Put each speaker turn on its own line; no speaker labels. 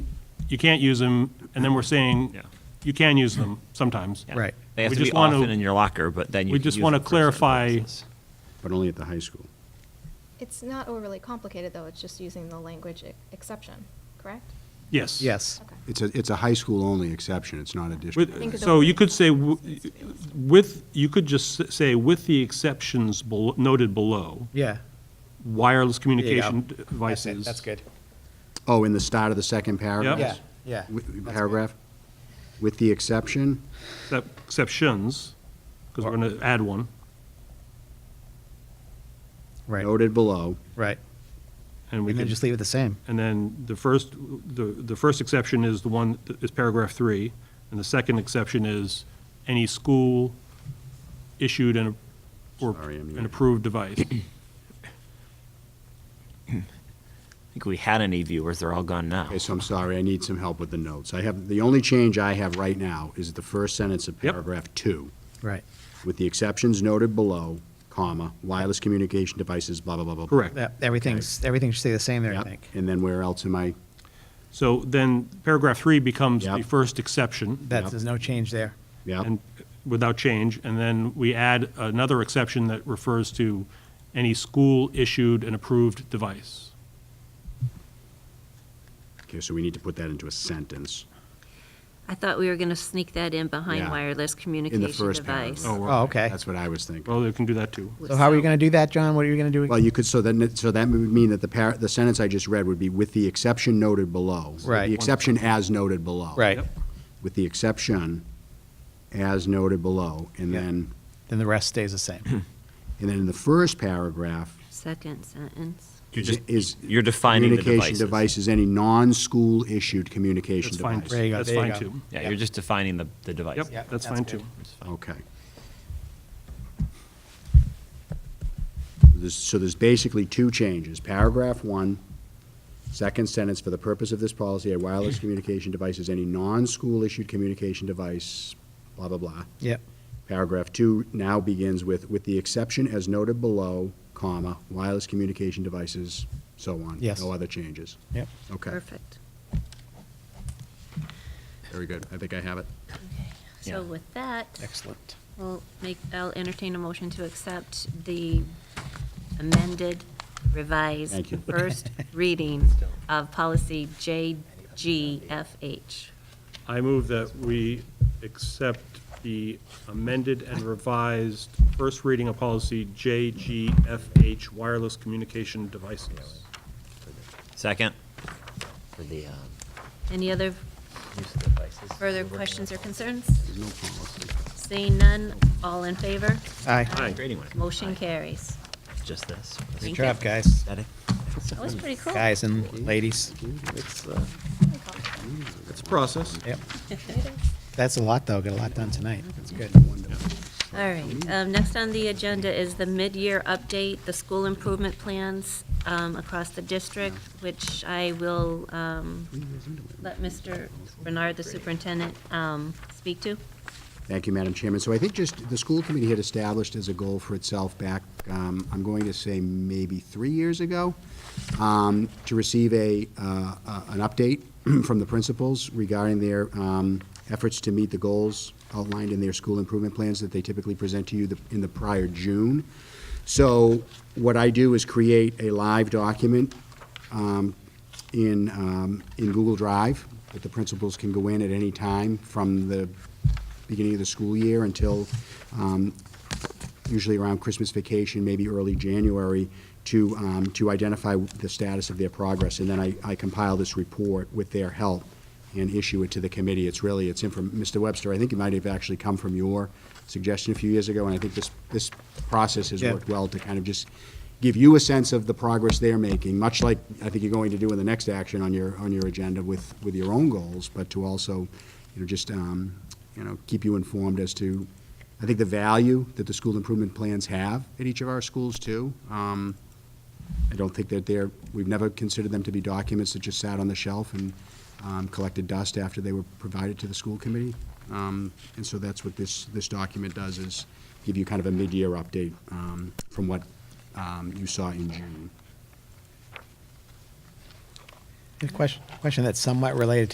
you can't use them, and then we're saying,
Yeah.
you can use them sometimes.
Yeah.
Right.
They have
We
to be
just wanna-
often in your locker, but then you
we
can
just
use
wanna
them for certain
clarify-
purposes.
but only at the high school.
It's not overly complicated, though, it's just using the language e- exception, correct?
Yes.
Yes.
Okay.
It's a, it's a high school only exception, it's not a district.
Think
With,
of
so
the-
you could say, w- with, you could just s- say, with the exceptions bel- noted below,
Yeah.
wireless
There you go.
communication
That's it.
devices.
That's good.
Oh, in the start of the second paragraph?
Yeah, yeah.
Wi-
That's good.
Paragraph? With the exception,
Excep- Exceptions, because we're going to add one.
Right,
noted below,
right.
And we
And
could,
then just leave it the same.
and then the first, the, the first exception is the one, that is paragraph three, and the second exception is any school issued and, a- or
Sorry, I'm
an
not-
approved device.
I think we had any viewers, they're all gone now.
okay, so I'm sorry, I need some help with the notes. I have, the only change I have right now is the first sentence of
Yep.
paragraph two.
Right.
With the exceptions noted below, comma, wireless communication devices, blah, blah, blah, blah. blah.
Correct.
That- Everything's, everything should stay the same there, I
Yep,
think.
and then where else am I?
So then paragraph three becomes the
Yep.
first exception.
That,
Yep.
there's no change there.
Yep.
and without change, and then we add another exception that refers to any school-issued and approved device.
Okay, so we need to put that into a sentence.
I thought we were going to sneak that in behind
Yeah.
wireless
In the
communication
first
device.
paragraph.
Oh,
Oh, okay.
That's what I was thinking.
Well, they can do that too.
So how are you
So-
going to do that, John? What are you going to do?
Well, you could, so then, it- so that would mean that the par, the sentence I just read would be with the exception noted below.
Right.
The exception as noted below.
Right.
Yep.
With the exception as noted below. And
Yeah.
then,
Then the rest stays the same.
and then in the first paragraph
Second sentence.
You're
is.
just- you're defining the devices.
Communication device is any non-school issued communication
That's fine.
device.
There you go,
That's
there you
fine
go.
too.
Yeah, you're just defining the, the device.
Yep, that's fine too.
It's fine.
Okay. This- So there's basically two changes. Paragraph one, second sentence, for the purpose of this policy, a wireless communication device is any non-school-issued communication device, blah, blah, blah.
Yep.
Paragraph two now begins with, with the exception as noted below, comma, wireless communication devices, so on.
Yes.
No other changes.
Yep.
Okay,
Perfect.
very good. I think I have it.
Yeah.
So with that,
Excellent.
we'll make, I'll entertain a motion to accept the amended, revised,
Thank you.
first reading of policy JGFH.
I move that we accept the amended and revised first reading of policy JGFH, wireless communication devices.
Second?
for the um,
Any other
use of devices.
further questions or concerns?
There's no policy.
Seeing none, all in favor?
Aye.
Aye.
Grading one.
Motion carries.
Just this.
Good
Thank
job,
you.
guys.
That it?
That was pretty cool.
Guys and ladies.
It's, uh,
It's process.
Yep. That's a lot, though. Got a lot done tonight. That's good.
All right, um, next on the agenda is the mid-year update, the school improvement plans, um, across the district, which I will, um, let Mr. Bernard, the superintendent, um, speak to.
Thank you, Madam Chairman. So I think just, the school committee had established as a goal for itself back, um, I'm going to say maybe three years ago, um, to receive a, uh, a- an update from the principals regarding their um, efforts to meet the goals outlined in their school improvement plans that they typically present to you the- in the prior June. So what I do is create a live document um, in, um, in Google Drive that the principals can go in at any time from the beginning of the school year until um, usually around Christmas vacation, maybe early January, to, um, to identify the status of their progress. And then I I compile this report with their help and issue it to the committee. It's really, it's inform, Mr. Webster, I think it might have actually come from your suggestion a few years ago, and I think this, this process has
Yeah.
worked well to kind of just give you a sense of the progress they're making, much like I think you're going to do in the next action on your, on your agenda with, with your own goals, but to also, you know, just, um, you know, keep you informed as to, I think, the value that the school improvement plans have at each of our schools, too. Um, I don't think that they're, we've never considered them to be documents that just sat on the shelf and um, collected dust after they were provided to the school committee. Um, And so that's what this, this document does, is give you kind of a mid-year update um, from what um, you saw in June.
A question, question that's somewhat related to